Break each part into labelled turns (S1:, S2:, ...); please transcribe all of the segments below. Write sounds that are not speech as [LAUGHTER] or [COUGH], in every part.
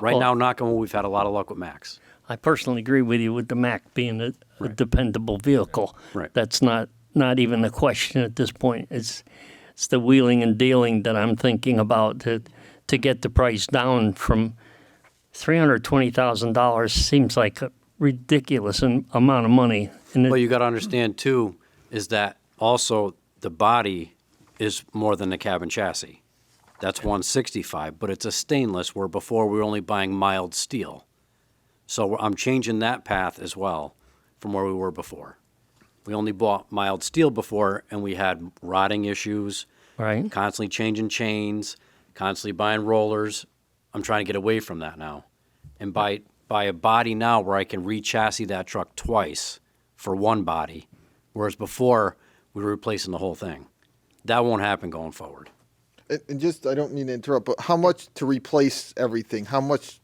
S1: Right
S2: Well-
S1: now, knock on wood, we've had a lot of luck with Max.
S2: I personally agree with you with the Mac being a, a dependable vehicle.
S1: Right.
S2: That's not not even a question at this point. It's it's the wheeling and dealing that I'm thinking about to to get the price down from three hundred twenty thousand dollars seems like a ridiculous an- amount of money. And it-
S1: But you got to understand too is that also the body is more than the cabin chassis. That's 165, but it's a stainless where before we were only buying mild steel. So we're- I'm changing that path as well from where we were before. We only bought mild steel before and we had rotting issues,
S2: right.
S1: constantly changing chains, constantly buying rollers. I'm trying to get away from that now and buy buy a body now where I can re chassis that truck twice for one body, whereas before we were replacing the whole thing. That won't happen going forward.
S3: And, and just, I don't mean to interrupt, but how much to replace everything? How much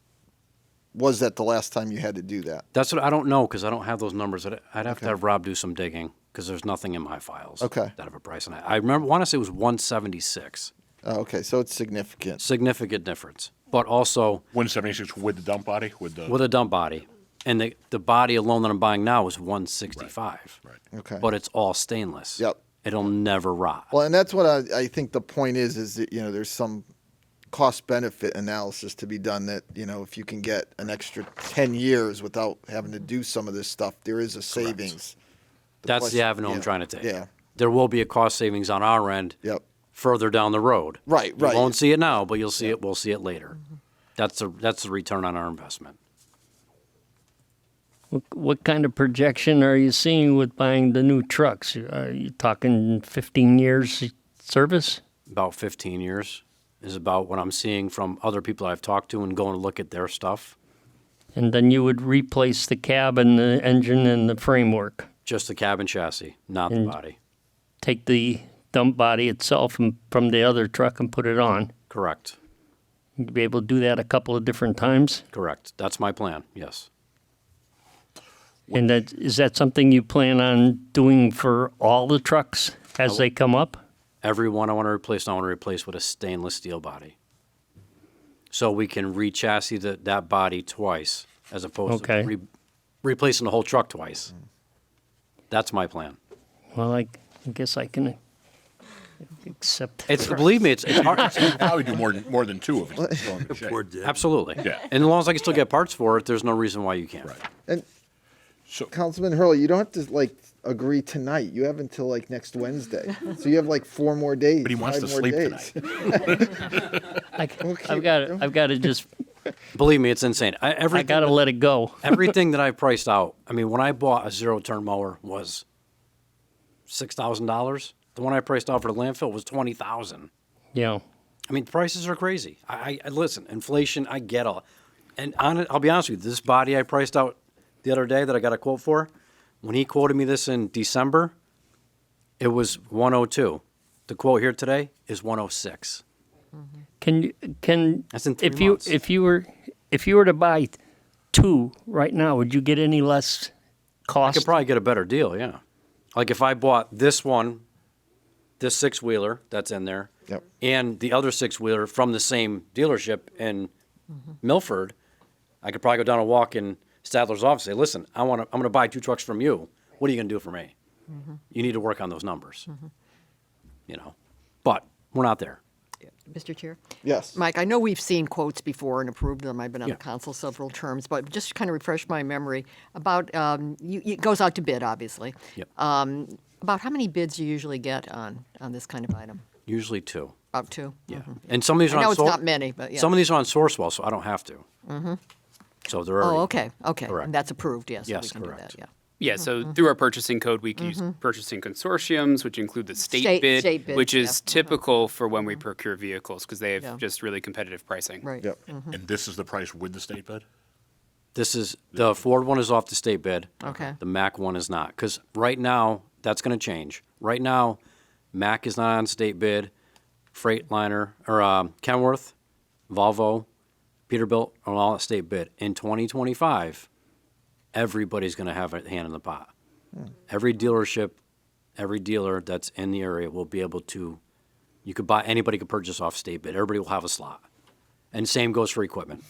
S3: was that the last time you had to do that?
S1: That's what I don't know because I don't have those numbers. I'd, I'd have to have Rob do some digging because there's nothing in my files
S3: Okay.
S1: that have a price. And I, I remember, want to say it was 176.
S3: Oh, okay, so it's significant.
S1: Significant difference, but also
S4: 176 with the dump body, with the.
S1: with a dump body, and the the body alone that I'm buying now is 165.
S4: Right.
S3: Okay.
S1: But it's all stainless.
S3: Yep.
S1: It'll never rot.
S3: Well, and that's what I, I think the point is is that you know there's some cost benefit analysis to be done that you know if you can get an extra 10 years without having to do some of this stuff there is a savings
S1: That's the
S3: question-
S1: avenue I'm
S3: yeah,
S1: trying to take.
S3: yeah.
S1: There will be a cost savings on our end.
S3: Yep.
S1: Further down the road.
S3: Right, right. Mm-hmm.
S1: You won't see it now, but you'll see it. We'll see it later. That's the that's the return on our investment.
S2: What, what kind of projection are you seeing with buying the new trucks? Are you talking fifteen years service?
S1: About 15 years is about what I'm seeing from other people I've talked to and going to look at their stuff.
S2: And then you would replace the cab and the engine and the framework.
S1: Just the cabin chassis, not the body.
S2: Take the dump body itself and from the other truck and put it on.
S1: Correct.
S2: You'd be able to do that a couple of different times.
S1: Correct. That's my plan. Yes.
S2: And that is that something you plan on doing for all the trucks as they come up?
S1: Every one I want to replace, I want to replace with a stainless steel body. So we can re-chassis the, that body twice as opposed
S2: Okay.
S1: to re- replacing the whole truck twice.
S4: Mm.
S1: That's my plan.
S2: Well, I, I guess I can accept.
S1: It's believe me, it's, it's
S4: [LAUGHS]
S1: hard.
S4: You could probably do more than, more than two of it. still in good shape.
S1: Absolutely.
S4: Yeah.
S1: And as long as I can still get parts for it, there's no reason why you can't.
S4: Right.
S3: and
S4: So,
S3: councilman hurley you don't have to like agree tonight you have until like next wednesday so you have like four more days
S4: but he wants
S3: five
S4: to
S3: more
S4: sleep
S3: days.
S4: tonight.
S2: I, I've got to, I've got to just
S1: Believe me, it's insane. I,
S2: I
S1: everything,
S2: got to [LAUGHS] let it go.
S1: everything that I priced out. I mean, when I bought a zero turn mower was six thousand dollars. The one I priced out for the landfill was twenty thousand.
S2: Yeah.
S1: I mean, prices are crazy. I, I, I listen, inflation. I get all, and on, it- I'll be honest with you. This body I priced out the other day that I got a quote for, when he quoted me this in December, it was 102. The quote here today is 106.
S2: Can you can
S1: That's in three
S2: if you
S1: months.
S2: if you were if you were to buy two right now, would you get any less
S1: I
S2: cost?
S1: could probably get a better deal. Yeah, like if I bought this one, this six wheeler that's in there,
S3: Yep.
S1: and the other six wheeler from the same dealership in
S5: Mm-hmm.
S1: Milford, I could probably go down and walk in Stadler's office and say, "Listen, I want to. I'm going to buy two trucks from you. What are you going to do for me?
S5: Mm-hmm.
S1: You need to work on those numbers. You know, but we're not there.
S5: Mr. Chair?
S3: [LAUGHS] yes
S5: Mike, I know we've seen quotes before and approved them. I've been on
S1: Yeah.
S5: the council several terms, but just to kind of refresh my memory about, um, you, it goes out to bid, obviously.
S1: Yep.
S5: Um, about how many bids you usually get on, on this kind of item?
S1: Usually two.
S5: About two?
S1: Yeah, and some of these
S5: mm-hmm.
S1: are
S5: I know
S1: on
S5: it's
S1: Sour-
S5: not many, but yeah.
S1: Some of these are on Sourcewell, so I don't have to. Mm-hmm. So they're already,
S5: Oh, okay, okay. And
S1: Correct.
S5: that's approved, yes. so
S1: Yes,
S5: we can do
S1: correct.
S5: that, yeah.
S6: Yeah, so
S5: Mm-hmm.
S6: through our purchasing code, we can use purchasing consortiums, which include the state,
S5: State-
S6: bid,
S5: state bids,
S6: which is
S5: yeah. Mm-hmm.
S6: typical for when we procure vehicles because they have
S5: Yeah.
S6: just really competitive pricing.
S5: Right.
S3: yep
S4: And this is the price with the state bid?
S1: This is the Ford one is off the state bid.
S5: Okay.
S1: The Mac one is not because right now that's going to change. Right now, Mac is not on state bid. Freightliner or um, Kenworth, Volvo, Peterbilt are all at state bid. In 2025, everybody's going to have a hand in the pot. Every dealership, every dealer that's in the area will be able to. You could buy anybody could purchase off state bid. Everybody will have a slot, and same goes for equipment.